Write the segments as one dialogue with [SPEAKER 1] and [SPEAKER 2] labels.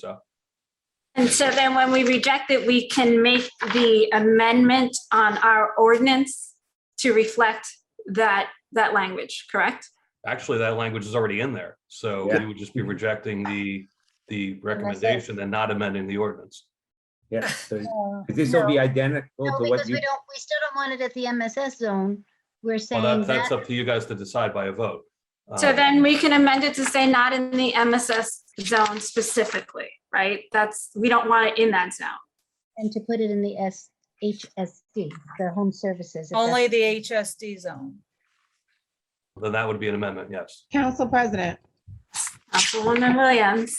[SPEAKER 1] so.
[SPEAKER 2] And so then when we reject it, we can make the amendment on our ordinance to reflect that, that language, correct?
[SPEAKER 1] Actually, that language is already in there, so we would just be rejecting the, the recommendation and not amending the ordinance.
[SPEAKER 3] Yeah, so
[SPEAKER 4] No,
[SPEAKER 3] this will be identical
[SPEAKER 4] No,
[SPEAKER 3] to what
[SPEAKER 4] because
[SPEAKER 3] you, Oh,
[SPEAKER 4] we don't, we still don't want it at the MSS zone. We're
[SPEAKER 1] Well,
[SPEAKER 4] saying
[SPEAKER 1] that, that's
[SPEAKER 4] that,
[SPEAKER 1] up to you guys to decide by a vote.
[SPEAKER 2] So
[SPEAKER 1] Um,
[SPEAKER 2] then we can amend it to say not in the MSS zone specifically, right? That's, we don't want it in that zone.
[SPEAKER 4] and to put it in the S, HSD, the home services. if that's-
[SPEAKER 5] Only the HSD zone.
[SPEAKER 1] Then that would be an amendment, yes.
[SPEAKER 6] Council President,
[SPEAKER 2] Councilwoman Williams,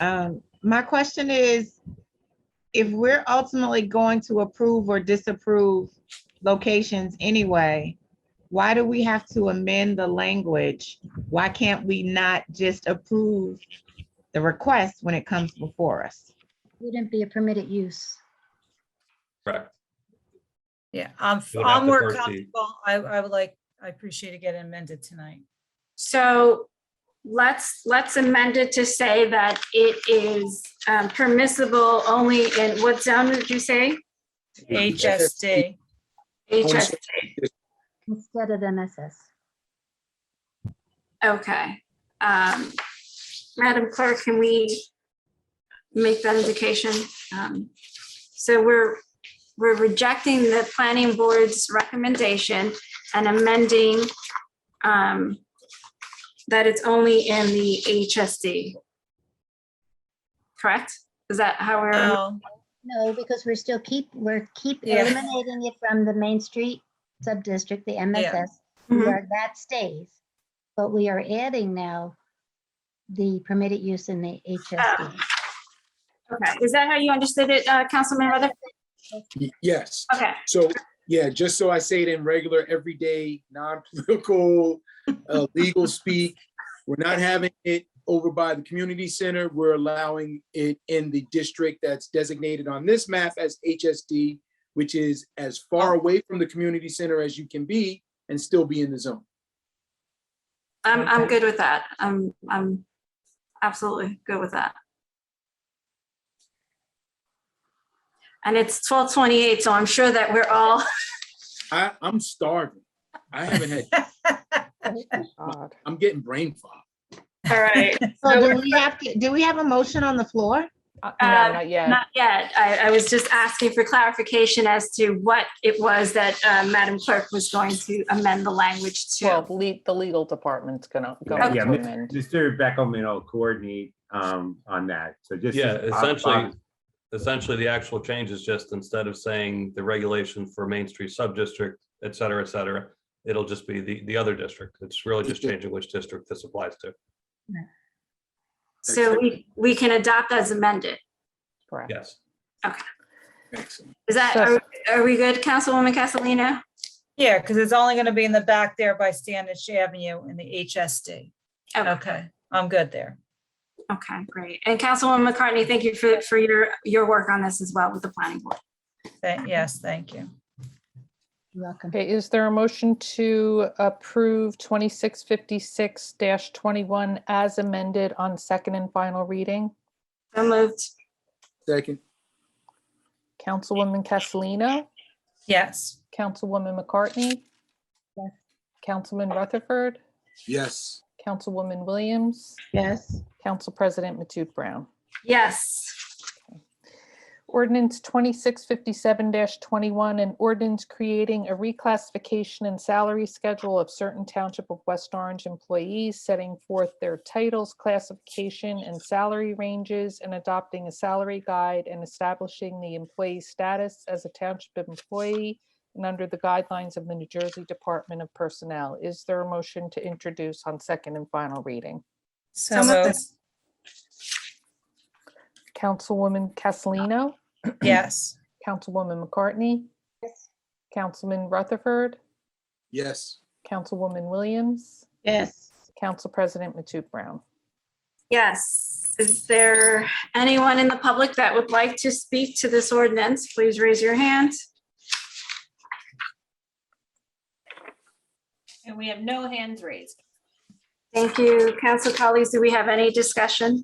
[SPEAKER 6] um, my question is, if we're ultimately going to approve or disapprove locations anyway, why do we have to amend the language? Why can't we not just approve the request when it comes before us?
[SPEAKER 4] Wouldn't be a permitted use.
[SPEAKER 1] Correct.
[SPEAKER 5] Yeah, I'm,
[SPEAKER 1] You would have
[SPEAKER 5] I'm
[SPEAKER 1] to
[SPEAKER 5] more
[SPEAKER 1] first see-
[SPEAKER 5] comfortable. I, I would like, I appreciate it getting amended tonight.
[SPEAKER 2] so let's, let's amend it to say that it is um, permissible only in, what zone did you say?
[SPEAKER 5] HSD.
[SPEAKER 2] HS,
[SPEAKER 4] Instead of MSS.
[SPEAKER 2] okay. Um, Madam Clerk, can we make that indication? Um, So we're, we're rejecting the planning board's recommendation and amending um, that it's only in the HSD. Correct? Is that how we're,
[SPEAKER 5] No,
[SPEAKER 4] No, because we're still keep, we're keep
[SPEAKER 5] Yeah.
[SPEAKER 4] eliminating it from the Main Street sub-district, the MSS,
[SPEAKER 2] Mhm.
[SPEAKER 5] Mm-hmm.
[SPEAKER 4] where that stays. But we are adding now the permitted use in the HSD.
[SPEAKER 2] okay, is that how you understood it, uh, Councilman Rutherford?
[SPEAKER 7] Y- Yes,
[SPEAKER 2] Okay,
[SPEAKER 7] so, yeah, just so I say it in regular, everyday, non-political, uh, legal speak. We're not having it over by the community center. We're allowing it in the district that's designated on this map as HSD, which is as far
[SPEAKER 4] Oh.
[SPEAKER 7] away from the community center as you can be and still be in the zone.
[SPEAKER 2] I'm, I'm good with that. I'm, I'm absolutely good with that. And it's twelve twenty-eight, so I'm sure that we're all,
[SPEAKER 7] I, I'm starving. I haven't had, I'm getting brain fog.
[SPEAKER 2] all right.
[SPEAKER 6] So do we have to, do we have a motion on the floor?
[SPEAKER 8] Uh, No,
[SPEAKER 2] Uh,
[SPEAKER 8] not yet.
[SPEAKER 2] Not yet. I, I was just asking for clarification as to what it was that uh, Madam Clerk was going to amend the language
[SPEAKER 8] Well,
[SPEAKER 2] to.
[SPEAKER 8] le- the legal department's gonna go
[SPEAKER 3] Yeah,
[SPEAKER 8] into
[SPEAKER 3] yeah, Mr.
[SPEAKER 8] amend.
[SPEAKER 3] Mr. Beckelman will coordinate um, on that. So just.
[SPEAKER 1] Yeah,
[SPEAKER 3] Bob-
[SPEAKER 1] essentially,
[SPEAKER 3] Bob-
[SPEAKER 1] essentially, the actual change is just instead of saying the regulation for Main Street sub-district, et cetera, et cetera, it'll just be the, the other district. It's really just changing which district this applies to.
[SPEAKER 2] So we, we can adopt as amended.
[SPEAKER 8] Correct.
[SPEAKER 1] Yes.
[SPEAKER 7] Excellent.
[SPEAKER 2] Is that,
[SPEAKER 8] So-
[SPEAKER 2] are are we good, Councilwoman Castellino?
[SPEAKER 5] yeah, because it's only going to be in the back there by Standish Avenue in the HSD.
[SPEAKER 9] Oh.
[SPEAKER 2] Okay.
[SPEAKER 5] Okay, I'm good there.
[SPEAKER 2] Okay, great. And Councilwoman McCartney, thank you for, for your, your work on this as well with the planning board.
[SPEAKER 5] Thank- Yes, thank you.
[SPEAKER 4] You're welcome.
[SPEAKER 8] Okay, is there a motion to approve twenty-six fifty-six twenty-one as amended on second and final reading?
[SPEAKER 2] So moved.
[SPEAKER 7] Second,
[SPEAKER 8] Councilwoman Castellino,
[SPEAKER 5] Yes,
[SPEAKER 8] Councilwoman McCartney,
[SPEAKER 4] Yes.
[SPEAKER 8] Councilman Rutherford,
[SPEAKER 7] yes,
[SPEAKER 8] Councilwoman Williams,
[SPEAKER 6] Yes.
[SPEAKER 8] Council President Matute Brown.
[SPEAKER 2] Yes.
[SPEAKER 8] Ordinance twenty-six fifty-seven twenty-one, an ordinance creating a reclassification and salary schedule of certain Township of West Orange employees, setting forth their titles, classification, and salary ranges, and adopting a salary guide and establishing the employee status as a Township employee and under the guidelines of the New Jersey Department of Personnel. Is there a motion to introduce on second and final reading?
[SPEAKER 5] so
[SPEAKER 2] So
[SPEAKER 5] moved.
[SPEAKER 2] moved.
[SPEAKER 8] Councilwoman Castellino,
[SPEAKER 5] Yes,
[SPEAKER 8] Councilwoman McCartney, Councilman Rutherford,
[SPEAKER 7] yes.
[SPEAKER 8] Councilwoman Williams,
[SPEAKER 6] Yes.
[SPEAKER 8] Council President Matute Brown.
[SPEAKER 2] Yes. Is there anyone in the public that would like to speak to this ordinance? Please raise your hand.
[SPEAKER 9] And we have no hands raised.
[SPEAKER 2] Thank you, council colleagues. Do we have any discussion?